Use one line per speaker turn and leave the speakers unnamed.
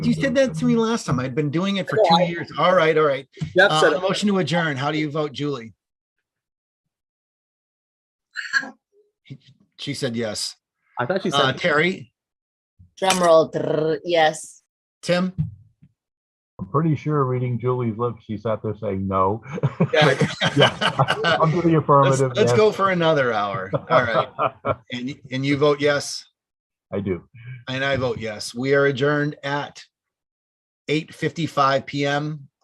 You said that to me last time. I'd been doing it for
No,
two
Oh, I-
years. All right, all right.
Jeff
Uh,
said
a
it.
motion to adjourn. How do you vote, Julie? She said yes.
I thought you
Uh,
said,
Terry,
Drum roll, drrr, yes.
Tim?
I'm pretty sure reading Julie's lips, she sat there saying no. Yeah.
Let's
I'm to the affirmative.
let's
yes.
go for another hour. All right. And, y- and you vote yes,
I do.
and I vote yes. We are adjourned at eight fifty-five PM